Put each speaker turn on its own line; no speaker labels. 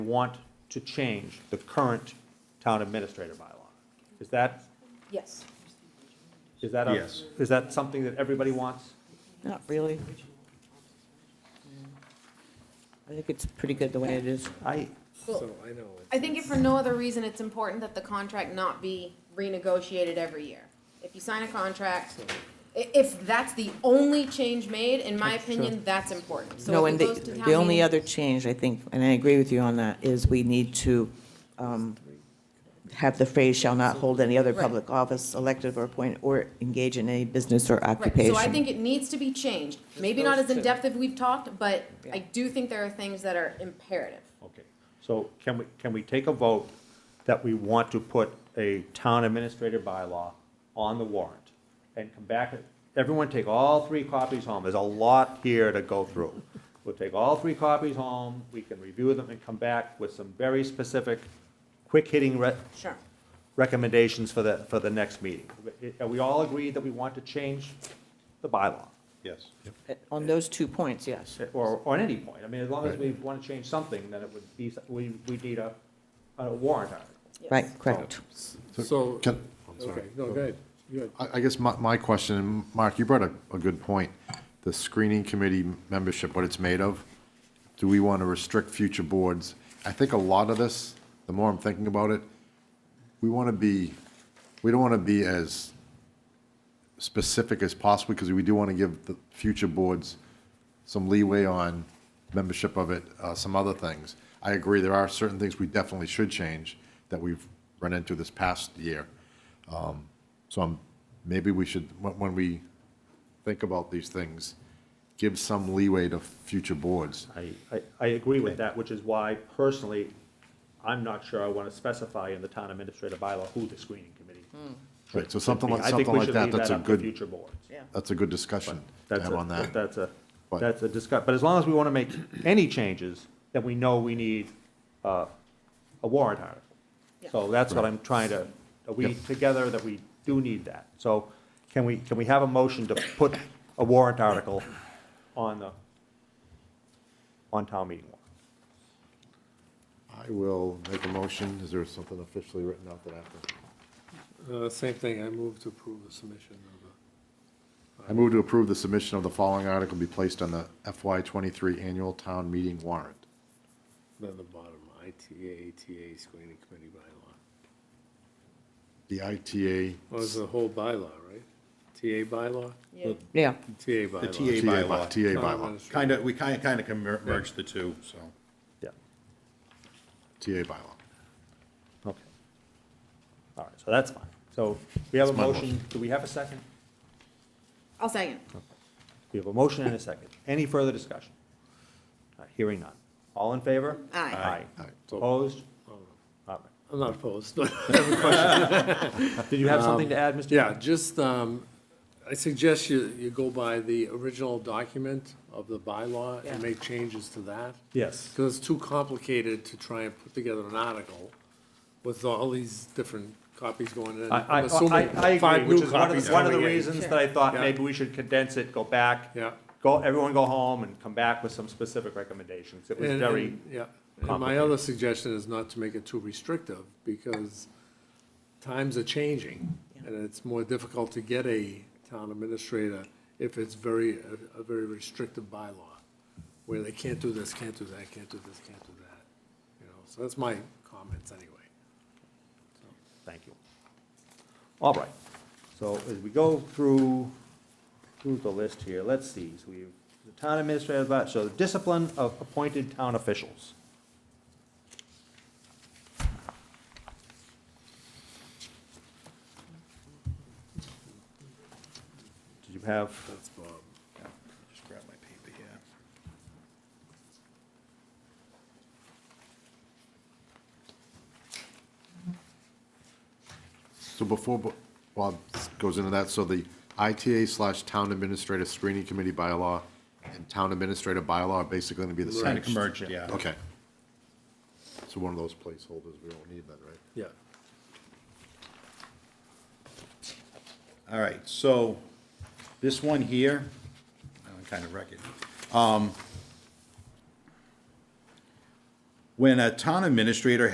want to change the current town administrator bylaw. Is that,
Yes.
is that, a-
Yes.
is that something that everybody wants?
Not really. I think it's pretty good the way it is.
I,
Well, I think if for no other reason, it's important that the contract not be renegotiated every year. If you sign a contract, i- if that's the only change made, in my opinion, that's important. So
No,
if
and
it
the,
goes to town
the only
meeting-
other change, I think, and I agree with you on that, is we need to um, have the phrase shall not hold any other
Right.
public office, elective or appointed, or engage in any business or
Right,
occupation.
so I think it needs to be changed. Maybe not as
those two.
in-depth as we've talked, but I
Yeah.
do think there are things that are imperative.
okay, so can we, can we take a vote that we want to put a town administrator bylaw on the warrant? And come back, everyone take all three copies home, there's a lot here to go through. We'll take all three copies home, we can review them and come back with some very specific, quick-hitting re-
Sure.
recommendations for the, for the next meeting. Are we all agreed that we want to change the bylaw?
Yes.
On those two points, yes.
Or, or at any point? I mean, as long as we want to change something, then it would be, we, we need a, a warrant article.
Right, correct.
So,
Can,
okay, no, go ahead. Go ahead.
I, I guess my, my question, and Mark, you brought a, a good point, the screening committee membership, what it's made of. Do we want to restrict future boards? I think a lot of this, the more I'm thinking about it, we want to be, we don't want to be as specific as possible because we do want to give the future boards some leeway on membership of it, uh, some other things. I agree, there are certain things we definitely should change that we've run into this past year. Um, So I'm, maybe we should, when, when we think about these things, give some leeway to future boards.
I, I, I agree with that, which is why personally, I'm not sure I want to specify in the town administrator bylaw who the screening committee.
Right, so something like,
I think
something
we
like
should
that,
leave
that's a
up to
good,
Future boards.
that's a good discussion to
That's
have on
a,
that.
that's a,
But-
that's a discuss, but as long as we want to make any changes, then we know we need uh, a warrant article. So that's what I'm trying to, are we
Yep.
together that we do need that? So can we, can we have a motion to put a warrant article on the, on town meeting warrant?
I will make a motion, is there something officially written out that I have to?
Uh, Same thing, I move to approve the submission of the,
I move to approve the submission of the following article be placed on the FY twenty-three annual town meeting warrant.
then the bottom, ITA, ATA screening committee bylaw.
The ITA,
Well, it's the whole bylaw, right? TA bylaw?
Yeah.
Yeah,
TA bylaw.
The
TA
TA
bylaw,
bylaw.
TA
Town
bylaw,
administrator.
Kind of, we kind of, kind of can mer- merge the two, so.
Yeah,
TA bylaw.
okay. All right, so that's fine. So we have a
That's my
motion,
motion.
do we have a second?
I'll second.
We have a motion and a second. Any further discussion? All right, Hearing none. All in favor?
Aye.
Aye.
Opposed? All right.
I'm not opposed, but.
Did you have something to add, Mr.?
um, Yeah, just, um, I suggest you, you go by the original document of the bylaw
Yeah.
and make changes to that.
Yes.
Because it's too complicated to try and put together an article with all these different copies going in.
I, I,
I'm assuming
I- I
five
agree, which
new
is one of
copies
the, one of the
coming in.
reasons that I thought
Yeah.
maybe we should condense it, go back.
Yeah.
Go, everyone go home and come back with some specific recommendations. It was
And-
very,
and- Yeah, and my other suggestion is not to make it too restrictive, because times are changing, and it's more difficult to get a town administrator if it's very, a- a very restrictive bylaw, where they can't do this, can't do that, can't do this, can't do that, you know, so that's my comments anyway.
thank you. All right, so as we go through, through the list here, let's see, so we, have the town administrator, but- so the discipline of appointed town officials. Did you have?
That's Bob.
Just grab my paper here.
So before Bo- Bob goes into that, so the ITA slash Town Administrator Screening Committee bylaw and Town Administrator bylaw are basically gonna be the
Kind
same?
of merged, yeah.
Okay. So one of those placeholders, we don't need that, right?
Yeah,
All right, so this one here, I kind of wreck it. Um, when a town administrator